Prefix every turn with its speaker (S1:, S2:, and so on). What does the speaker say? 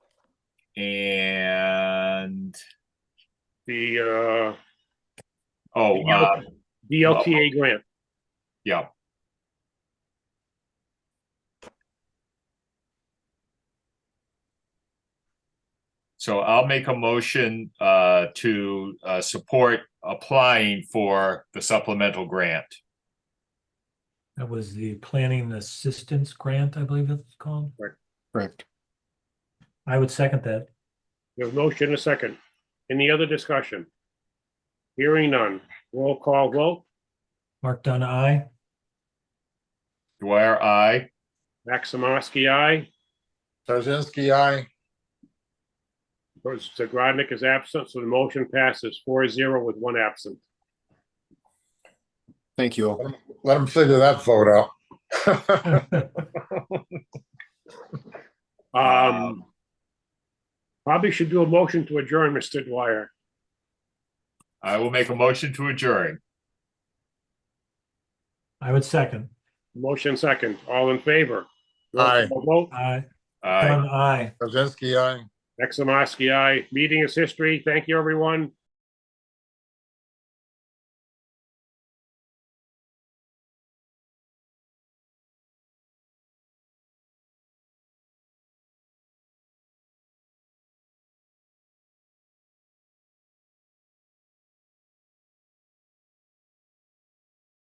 S1: and,
S2: the, uh,
S1: oh, uh,
S2: DLTA grant.
S1: yeah. So I'll make a motion, uh, to, uh, support applying for the supplemental grant.
S3: That was the planning assistance grant, I believe it's called.
S4: Correct.
S3: I would second that.
S2: There's motion and a second. Any other discussion? Hearing none. Roll call vote.
S3: Mark Dunn, I.
S1: Dwyer, I.
S2: Maximovsky, aye.
S4: Tarzinski, I.
S2: Zagradnik is absent, so the motion passes four zero with one absent.
S4: Thank you all.
S5: Let him figure that vote out.
S2: Um, probably should do a motion to adjourn, Mr. Dwyer.
S1: I will make a motion to adjourn.
S3: I would second.
S2: Motion second. All in favor? Roll
S5: Aye.
S2: call Vote.
S3: I.
S1: Aye.
S3: Dunn, I.
S5: Tarzinski, aye.
S2: Maximovsky, aye. Meeting is history. Thank you, everyone.